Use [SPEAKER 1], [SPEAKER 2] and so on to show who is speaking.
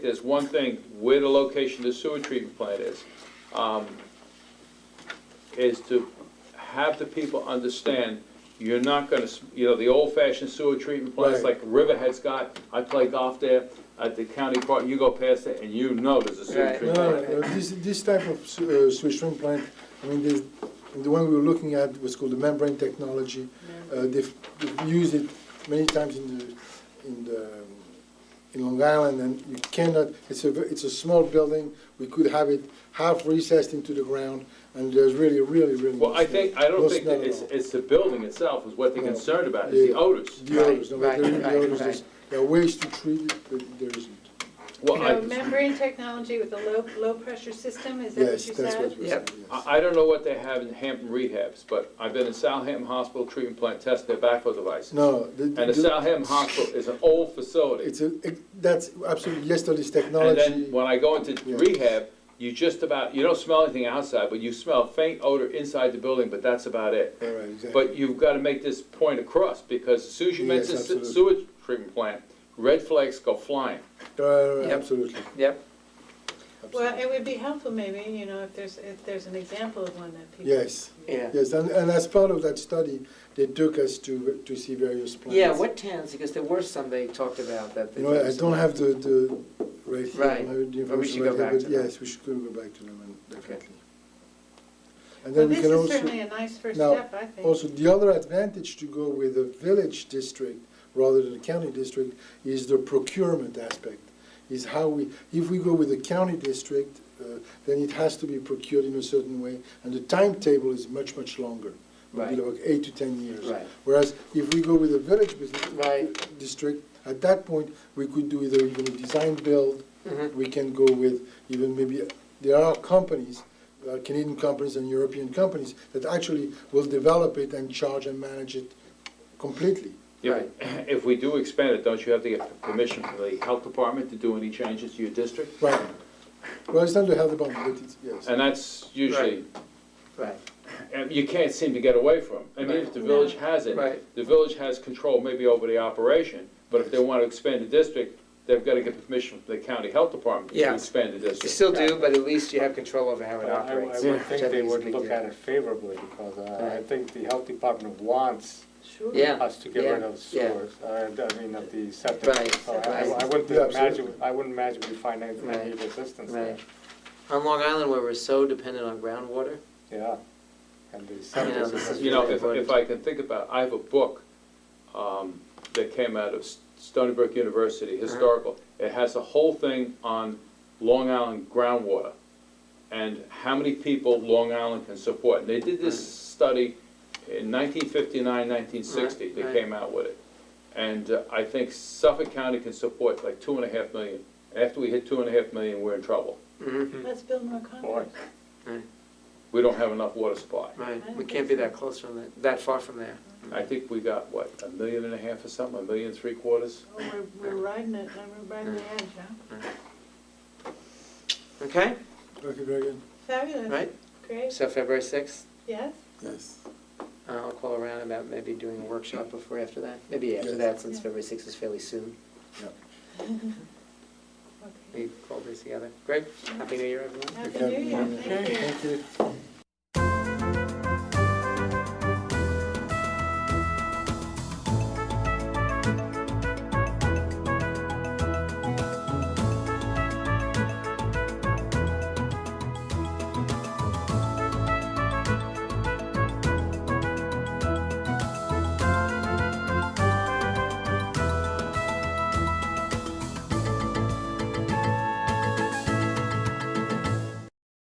[SPEAKER 1] is one thing, where the location of the sewer treatment plant is, um, is to have the people understand, you're not gonna, s- you know, the old-fashioned sewer treatment plants
[SPEAKER 2] Right.
[SPEAKER 1] like Riverhead's got, I play golf there, at the county park, you go past it and you know there's a sewer
[SPEAKER 3] Right.
[SPEAKER 2] No,
[SPEAKER 1] treatment.
[SPEAKER 2] no, no, this, this type of su- uh, sewage treatment plant, I mean, there's, the one we were looking at was called the membrane technology. Uh, they've, they've used it many times in the, in the, um, in Long Island, and you cannot, it's a, ve- it's a small building, we could have it half recessed into the ground, and there's really, really, really.
[SPEAKER 1] Well, I think, I
[SPEAKER 2] no
[SPEAKER 1] don't think
[SPEAKER 2] smell
[SPEAKER 1] that
[SPEAKER 2] at
[SPEAKER 1] it's,
[SPEAKER 2] all.
[SPEAKER 1] it's the building itself is what they're
[SPEAKER 2] No.
[SPEAKER 1] concerned about, is the
[SPEAKER 2] Yeah.
[SPEAKER 1] odors.
[SPEAKER 2] The odors, no, but
[SPEAKER 3] Right,
[SPEAKER 2] there is the
[SPEAKER 3] right,
[SPEAKER 2] odors,
[SPEAKER 3] right.
[SPEAKER 2] there's- there are ways to treat it, but there isn't.
[SPEAKER 1] Well,
[SPEAKER 4] So
[SPEAKER 1] I,
[SPEAKER 4] membrane technology with a low, low-pressure system, is that what
[SPEAKER 2] Yes,
[SPEAKER 4] you
[SPEAKER 2] that's what
[SPEAKER 4] said?
[SPEAKER 2] we
[SPEAKER 3] Yep.
[SPEAKER 2] said, yes.
[SPEAKER 1] I I don't know what they have in Hampton rehabs, but I've been in Southampton Hospital treatment plant, test their backflow devices.
[SPEAKER 2] No, the.
[SPEAKER 1] And the Southampton Hospital is an old facility.
[SPEAKER 2] It's a, it- that's absolutely yesterday's
[SPEAKER 1] And
[SPEAKER 2] technology.
[SPEAKER 1] then when I go into
[SPEAKER 2] Yeah.
[SPEAKER 1] rehab, you just about, you don't smell anything outside, but you smell faint odor inside the building, but that's about it.
[SPEAKER 2] All right, exactly.
[SPEAKER 1] But you've got to make this point across, because as soon as you
[SPEAKER 2] Yes,
[SPEAKER 1] mention se-
[SPEAKER 2] absolutely.
[SPEAKER 1] sewage treatment plant, red flags go flying.
[SPEAKER 2] All right,
[SPEAKER 3] Yep.
[SPEAKER 2] Uh, Absolutely.
[SPEAKER 3] Yep,
[SPEAKER 4] Well,
[SPEAKER 2] absolutely.
[SPEAKER 4] it would be helpful maybe, you know, if there's, if there's an example of one that people.
[SPEAKER 2] Yes,
[SPEAKER 3] yeah.
[SPEAKER 2] yes, and, and as part of that study, they took us to, to see various plants.
[SPEAKER 3] Yeah, what towns, because there were some they talked about that. they
[SPEAKER 2] You know, I
[SPEAKER 3] used.
[SPEAKER 2] don't have the, the, right here.
[SPEAKER 3] Right.
[SPEAKER 2] I don't have the
[SPEAKER 3] But we should
[SPEAKER 2] information
[SPEAKER 3] go
[SPEAKER 2] right here,
[SPEAKER 3] back
[SPEAKER 2] but
[SPEAKER 3] to them.
[SPEAKER 2] Yes, we should go go back to them, and definitely. And
[SPEAKER 4] Well,
[SPEAKER 2] then we
[SPEAKER 4] this
[SPEAKER 2] can
[SPEAKER 4] is
[SPEAKER 2] also,
[SPEAKER 4] certainly a nice first
[SPEAKER 2] now,
[SPEAKER 4] step, I think.
[SPEAKER 2] also, the other advantage to go with a village district rather than a county district is the procurement aspect, is how we, if we go with a county district, uh, then it has to be procured in a certain way, and the timetable is much, much longer. Maybe
[SPEAKER 3] Right.
[SPEAKER 2] like eight to ten years.
[SPEAKER 3] Right.
[SPEAKER 2] Whereas if we go with a village business
[SPEAKER 3] Right.
[SPEAKER 2] district, at that point, we could do either even a design build,
[SPEAKER 3] Mhm.
[SPEAKER 2] we can go with even maybe, there are companies, uh, Canadian companies and European companies, that actually will develop it and charge and manage it completely.
[SPEAKER 1] Yeah,
[SPEAKER 3] Right.
[SPEAKER 1] but If we do expand it, don't you have to get permission from the health department to do any changes to your district?
[SPEAKER 2] Right. Well, it's not the health department, but it's, yes.
[SPEAKER 1] And that's usually,
[SPEAKER 3] Right,
[SPEAKER 1] and you can't seem to get away from. I mean, if the village has it,
[SPEAKER 3] Right.
[SPEAKER 1] the village has control maybe over the operation, but if they want to expand the district, they've got to get permission from the county health department to
[SPEAKER 3] Yeah.
[SPEAKER 1] expand the
[SPEAKER 3] you
[SPEAKER 1] district.
[SPEAKER 3] still do, but at least you have control over how
[SPEAKER 5] I
[SPEAKER 3] it
[SPEAKER 5] I
[SPEAKER 3] operates.
[SPEAKER 5] would
[SPEAKER 3] which I
[SPEAKER 5] think they
[SPEAKER 3] is a
[SPEAKER 5] would
[SPEAKER 3] big
[SPEAKER 5] look
[SPEAKER 3] deal.
[SPEAKER 5] at it favorably, because uh, I
[SPEAKER 3] Right.
[SPEAKER 5] think the health department wants
[SPEAKER 4] Sure.
[SPEAKER 3] Yeah.
[SPEAKER 5] us to get
[SPEAKER 3] yeah,
[SPEAKER 5] rid of
[SPEAKER 3] yeah.
[SPEAKER 5] sewers, uh, I mean, of the septic.
[SPEAKER 3] Right,
[SPEAKER 5] So Oh, I-
[SPEAKER 3] right.
[SPEAKER 5] I wouldn't
[SPEAKER 2] Yeah,
[SPEAKER 5] imagine,
[SPEAKER 2] absolutely.
[SPEAKER 5] I wouldn't imagine we find any
[SPEAKER 3] Right.
[SPEAKER 5] any resistance there.
[SPEAKER 3] Right. On Long Island, where we're so dependent on groundwater,
[SPEAKER 5] Yeah. And the septic
[SPEAKER 3] this
[SPEAKER 5] is-
[SPEAKER 3] is
[SPEAKER 1] You know, if, if I can think about, I have a book um, that came out of S- Stony Brook University,
[SPEAKER 3] Uh-huh.
[SPEAKER 1] historical. It has a whole thing on Long Island groundwater and how many people Long Island can support. And they did this
[SPEAKER 3] Uh-huh.
[SPEAKER 1] study in 1959, 1960, they
[SPEAKER 3] Right, right.
[SPEAKER 1] came out with it. And uh, I think Suffolk County can support like two and a half million. After we hit two and a half million, we're in trouble.
[SPEAKER 3] Mhm,
[SPEAKER 4] Let's build more condos.
[SPEAKER 5] Boy.
[SPEAKER 3] right,
[SPEAKER 1] We don't have enough water supply.
[SPEAKER 3] right, we can't be that close from that, that far from there.
[SPEAKER 1] I think we got, what, a million and a half or something, a million three quarters?
[SPEAKER 4] Oh, we're, we're riding it, and we're riding the edge, huh?
[SPEAKER 3] Okay,
[SPEAKER 2] Okay, very good.
[SPEAKER 4] Fabulous,
[SPEAKER 3] right,
[SPEAKER 4] great,
[SPEAKER 3] so February sixth, uh,
[SPEAKER 4] yes?
[SPEAKER 2] Yes.
[SPEAKER 3] I'll call around about maybe doing a workshop before, after that, maybe after
[SPEAKER 2] Yes.
[SPEAKER 3] that, since
[SPEAKER 4] Yeah.
[SPEAKER 3] February sixth is fairly soon.
[SPEAKER 4] Okay.
[SPEAKER 3] We call this together. Great, happy new year, everyone.
[SPEAKER 4] Happy New Year, thank you.
[SPEAKER 2] Thank you.